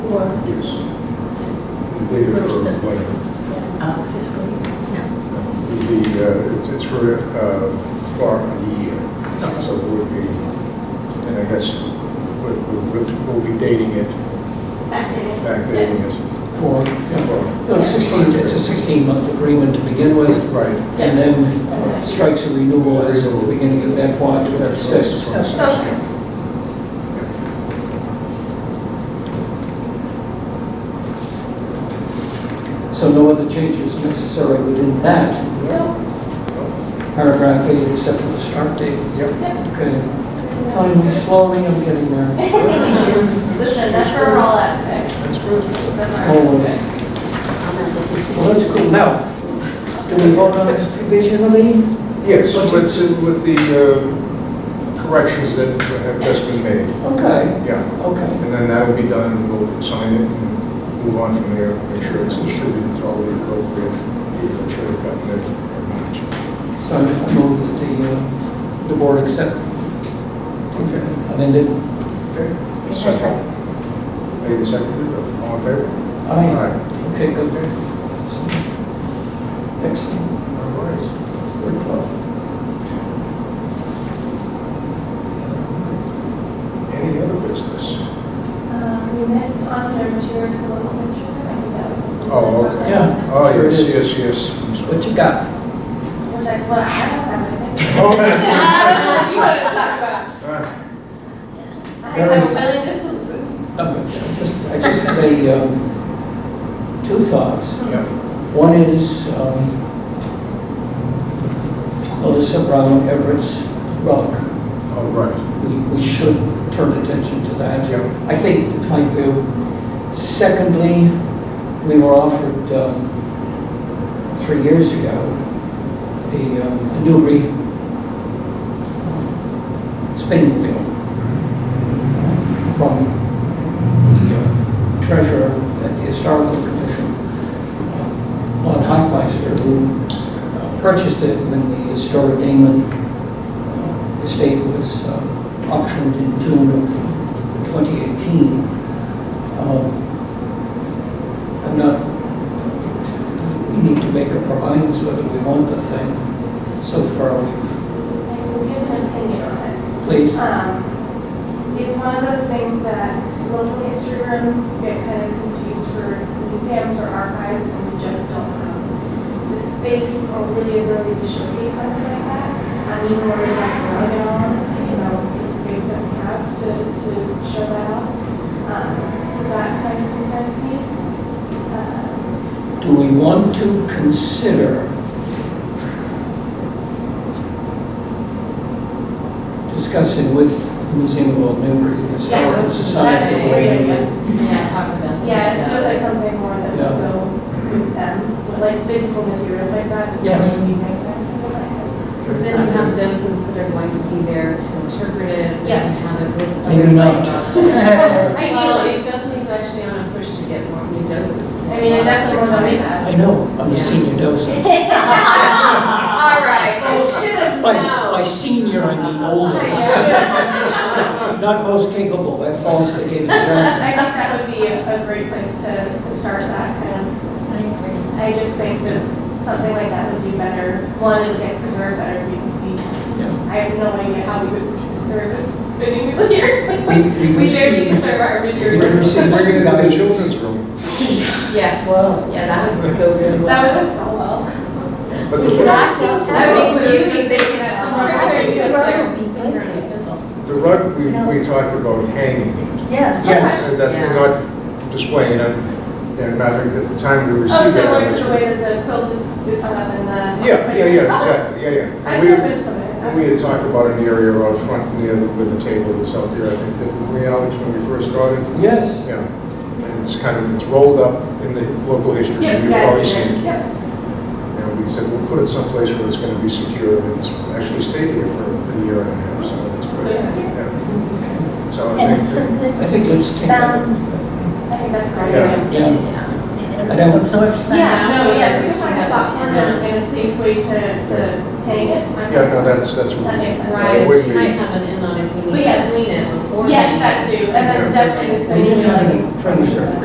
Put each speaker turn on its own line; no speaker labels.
Uh,
for
Yes. They did it
First
for
step.
whatever.
uh, fiscal year?
It'd be, uh, it's, it's for, uh, far in the year. So it would be, and I guess we- we- we- we'll be dating it,
Backdated.
backdating it.
for, you
Well,
know, 16, it's a 16-month agreement to begin with,
Right.
and then uh, strikes a renewal as of the beginning of FY
That's-
'26.
that's-
Okay.
So no other changes necessary within that
No,
paragraph eight except for the start date.
Yep.
Okay, finally, slowly, I'm getting there.
Listen, that's for all aspects.
That's good.
That's all right.
Always. Well, that's cool. Now, do we vote on this provisionally?
Yes,
But
with,
it's-
with the uh, corrections that have just been made,
Okay,
yeah.
okay.
And then that will be done, and we'll sign it and move on from there, make sure it's distributed to all the appropriate people that should have gotten it or not.
So I move that the, uh, the board accept
Okay.
amended.
Okay. Second. Made and seconded, all in favor?
Aye. Okay, good.
Okay.
Excellent.
All right.
Very well.
Any other business?
Um, You missed on your materials for local history, I think that was. something
Oh,
that-
yeah.
Oh,
Sure
yes, yes,
is.
yes. I'm sorry.
What you got?
Which I, well, I don't have anything.
Okay.
I was like, You wanted to talk about.
All right.
I have a million distance.
Um, I Just, I just have a, um, two thoughts.
Yeah.
One is, um, Melissa Brown Everett's rock.
All right.
We, we should turn attention to that.
Yeah.
I think that's my view. Secondly, we were offered, um, three years ago, the um, Newbury um, spinning wheel uh, from the uh, treasurer at the Historical Commission uh, on Hockmeister, who uh, purchased it when the historic Damon uh, estate was uh, auctioned in June of 2018. Um, I'm not, we need to make up our minds whether we want the thing. So far, we-
I will give an opinion on it.
please,
Um, It's one of those things that local history rooms get kind of confused for museums or archives, and we just don't have the space or really ability to showcase something like that. I mean, we're in like, really in all honesty, you know, the space that we have to, to show that off. Um, So that kind of concerns me. Uh,
do we want to consider discussing with the Museum of Old Newbury, the Historical
Yes,
Society?
that's a
the way
great
they-
idea.
Yeah, talked about.
Yeah, it feels like something more that
Yeah.
will go with them, but like physical materials like that is
Yes.
really amazing. Yes.
Because then you have docents that are going to be there to interpret it and
Yeah.
have it with.
Maybe
other
not.
language.
Ideally.
Well, Bethany's actually on a push to get more new docents.
I mean, I definitely want to make that.
I know, I'm a
Yeah.
senior docent.
All right, I should have
By, by senior, I mean oldest, not most capable, that falls to age.
I think that would be a a great place to, to start that kind of. I just think that something like that would do better, one, it would get preserved better because we, I have no idea how we would preserve this spinning wheel here.
We, we
We barely
received
conserve our
we
materials.
received
Bring it into the
guidance.
children's room.
Yeah, well, yeah, that would go really well.
That would go so well.
But the,
Knocked out some
I
of
mean,
the
you
beauty
can
they
think
can
that
somewhere.
somewhere.
I think
Yeah.
the rug would
Yeah.
be bigger than spindle.
the rug, we, we talked about hanging it.
Yes.
Yes,
And That they're not displaying it. And matter of fact, at the time we
Oh,
received it. I
similar
was-
to the way that the quilt is, is hung up in the.
Yeah, yeah, yeah, exactly, yeah, yeah.
I
We-
could put something
And We
like
had talked about an area out front near the- with the table that's out there, I think, that we Alex, when we first started.
yes.
Yeah, and it's kind of, it's rolled up in the local history,
that. Yep,
you've
yeah,
already
it's
seen
there.
it.
Yep.
And we said, we'll put it someplace where it's going to be secure, and it's actually stayed here for a year and a half, so it's
So
good.
it's here.
Yeah. So I
And it's a
think,
I think
good
let's take that.
sound,
I think that's great.
Yeah.
Yeah, I
it
don't-
absorbs sound.
Yeah, no, yeah, if you
Yeah.
find a soft corner and a safe way to, to hang it. I'm-
yeah, no, that's, that's.
That makes sense.
It
Right,
would
she
be-
might have an in on if we need
Yeah.
to clean it before.
Yes,
we-
that too, and then definitely the
We
spinning
didn't
wheel,
have
I
any
think.
furniture.